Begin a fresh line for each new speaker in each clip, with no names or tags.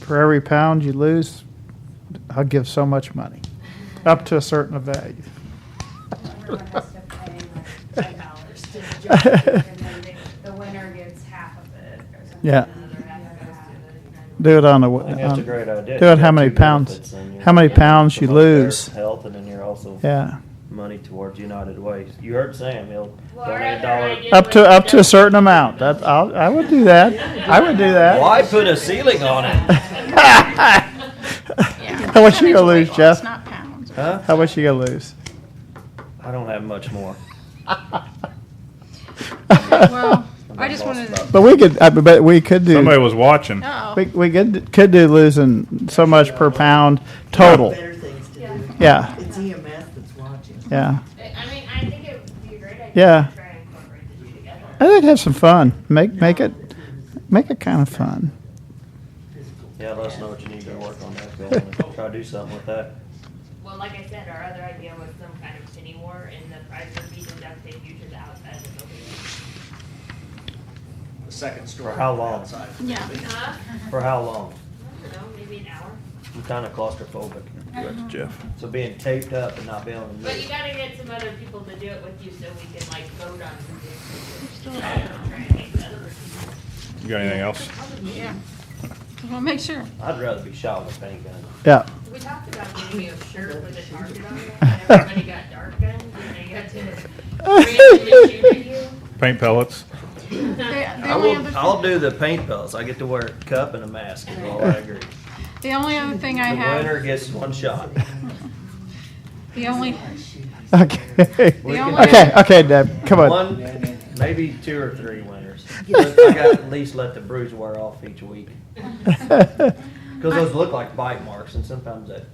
for every pound you lose, I'll give so much money, up to a certain value.
Everyone has to pay like ten dollars to the judge, and then the- the winner gets half of it or something.
Yeah.
or the other half of it.
Do it on a,
I think that's a great idea.
on- do it Um, how many pounds, how many pounds you lose.
Health, and then you're also
Yeah,
money towards United Way. You heard Sam, he'll
Well, our
donate a
other
dollar.
idea
up to,
was
up to a
that-
certain amount. That, I'll, I would do that. I would do that.
Why put a ceiling on it?
Yeah.
How much you gonna lose,
Percentage of weight
Jeff?
loss, Not pounds.
Huh?
How much you gonna lose?
I don't have much more.
Well, I just
lost
wanted,
about-
But we could, I bet we could do.
Somebody was watching.
We,
oh,
we could, could do losing so much per pound total.
Better things to do.
Yeah,
It's EMS that's watching.
yeah.
I mean, I think it would be a great idea.
Yeah.
To try and incorporate the two together.
I think have some fun. Make, make it, make it kind of fun.
Yeah, let us know what you need to work on that, Bill, and try to do something with that.
Well, like I said, our other idea was some kind of penny war, and the prize would be to duct tape you to the outside of the building.
The second story.
For how long?
outside.
yeah.
Huh?
For how long?
I don't know, maybe an hour.
I'm kinda claustrophobic.
That's Jeff.
So being taped up and not being able to
But you
move.
gotta get some other people to do it with you so we can like vote on something. Try and make the other people-
You got anything else?
Yeah. Well, make sure.
I'd rather be shot with a paint gun.
Yeah.
We talked about maybe a shirt with a target on it, and everybody got dark guns, and they got to randomly shoot at you.
Paint pellets.
The- The
I
only
will,
other,
I'll
thi-
do the paint belts. I get to wear a cup and a mask, is all I agree.
the only other thing I
The winner
have,
gets one shot.
the only,
Okay.
We can
The only-
have
Okay, okay, Deb, come on.
One, maybe two or three winners. But I gotta at least let the bruise wear off each week. Cause those look like bite marks and sometimes that,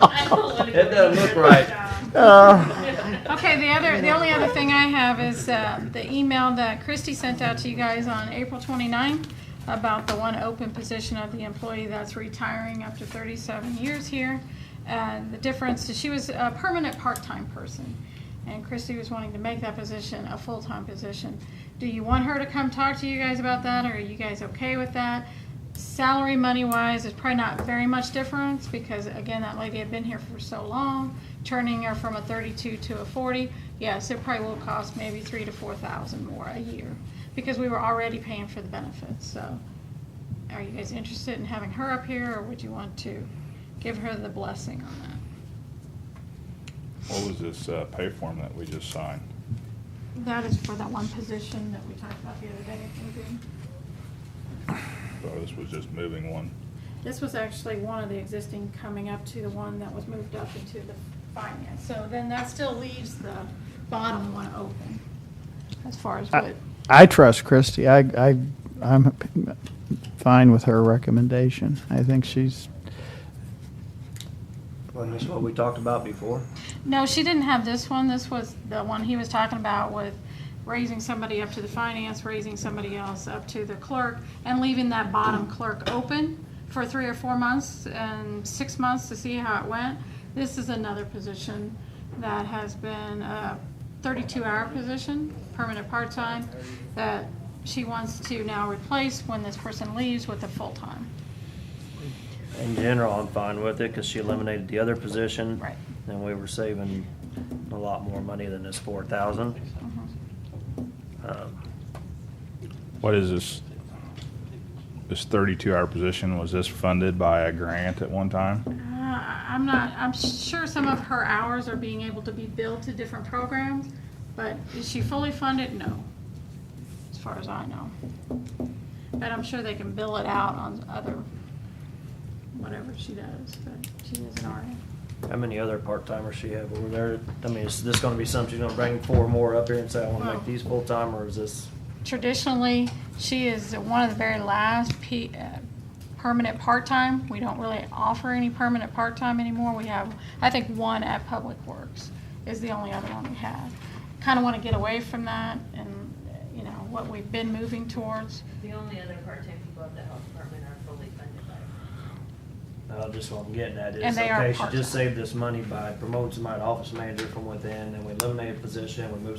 I don't wanna go
It doesn't look
anywhere
right.
without-
Uh,
okay, the other, the only other thing I have is uh, the email that Christy sent out to you guys on April 29th about the one open position of the employee that's retiring after 37 years here. And the difference, is she was a permanent part-time person. And Christy was wanting to make that position a full-time position. Do you want her to come talk to you guys about that, or are you guys okay with that? Salary money-wise, it's probably not very much difference, because again, that lady had been here for so long, turning her from a thirty-two to a forty. Yes, it probably will cost maybe three to four thousand more a year, because we were already paying for the benefits, so. Are you guys interested in having her up here, or would you want to give her the blessing on that?
What was this uh, pay form that we just signed?
That is for that one position that we talked about the other day, moving.
Oh, this was just moving one.
This was actually one of the existing coming up to the one that was moved up into the finance. So then that still leaves the bottom one open as far
Uh,
as what.
I trust Christy. I, I, I'm fine with her recommendation. I think she's,
wasn't this what we talked about before?
No, she didn't have this one. This was the one he was talking about with raising somebody up to the finance, raising somebody else up to the clerk, and leaving that bottom clerk open for three or four months and six months to see how it went. This is another position that has been a thirty-two hour position, permanent part-time, that she wants to now replace when this person leaves with a full-time.
In general, I'm fine with it, cause she eliminated the other position.
Right.
And we were saving a lot more money than this four thousand. Um,
What is this? This thirty-two hour position, was this funded by a grant at one time?
Uh, I'm not, I'm sure some of her hours are being able to be billed to different programs, but is she fully funded? No, as far as I know. But I'm sure they can bill it out on other, whatever she does, but she is an RN.
How many other part-timers she have over there? I mean, is this gonna be something she's gonna bring four more up here and say, I wanna
Well-
make these full-time, or is this?
Traditionally, she is one of the very last P, uh, permanent part-time. We don't really offer any permanent part-time anymore. We have, I think, one at Public Works is the only other one we have. Kind of want to get away from that and, uh, you know, what we've been moving towards.
The only other part-time people at the health department are fully funded by.
Uh, just what I'm getting at
And
is,
they are
okay, she
part-time.
just saved this money by promoting somebody to office manager from within, and we eliminated a position, we moved